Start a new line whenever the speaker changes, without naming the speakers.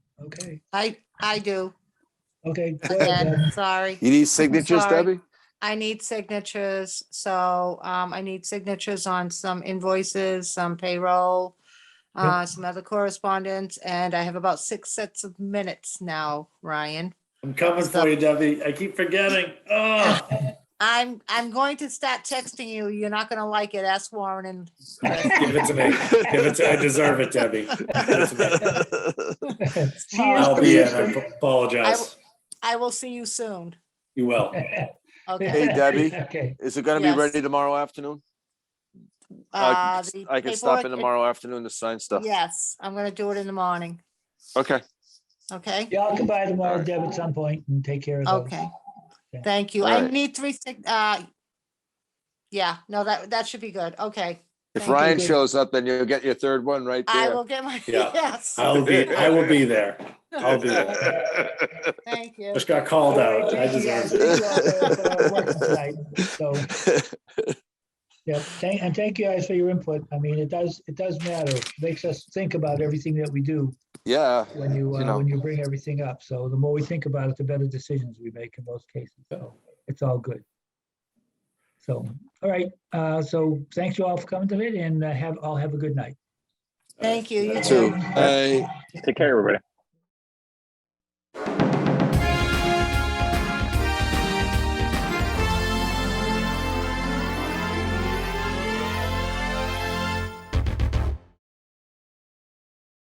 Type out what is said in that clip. Okay,
I, I do.
okay. go ahead, Deb.
Again, sorry.
You need signatures,
sorry.
Debbie?
I need signatures, so um, I need signatures on some invoices, some payroll,
Yep.
uh, some other correspondence, and I have about six sets of minutes now, Ryan.
I'm coming for you, Debbie. I keep forgetting. Oh,
I'm, I'm going to start texting you. You're not gonna like it. Ask Warren and
give it to me. Give it to, I deserve it, Debbie. Give it to me.
She
I'll be
is
in. I apologize.
I will see you soon.
You will.
pretty-
Okay.
Hey, Debbie.
Okay,
Is it gonna be
Yes.
ready tomorrow afternoon?
Uh,
I can-
the
I can stop in
paperwork-
tomorrow afternoon to sign stuff.
Yes, I'm gonna do it in the morning,
Okay,
okay?
yeah, I'll come by tomorrow,
Alright.
Deb, at some point and take care of those.
Okay,
Yeah.
thank you.
All
I
right.
need three, sig- uh, yeah, no, that, that should be good. Okay.
if
Thank you.
Ryan shows up, then you'll get your third one right
I
there.
will get my,
Yeah.
yes,
I'll be, I will be there. I'll be there.
thank you.
Just got called out. I
Yeah,
deserve it.
thank you all for- for working tonight. So, yeah, thank, and thank you guys for your input. I mean, it does, it does matter. It Makes us think about everything that we do
Yeah,
when you,
You
uh,
know.
when you bring everything up. So the more we think about it, the better decisions we make in most cases. So it's all good. So, all right, uh, so thanks you all for coming tonight and uh, have, all have a good night.
Thank you. You
Alright.
too.
two. I-
Take care, everybody.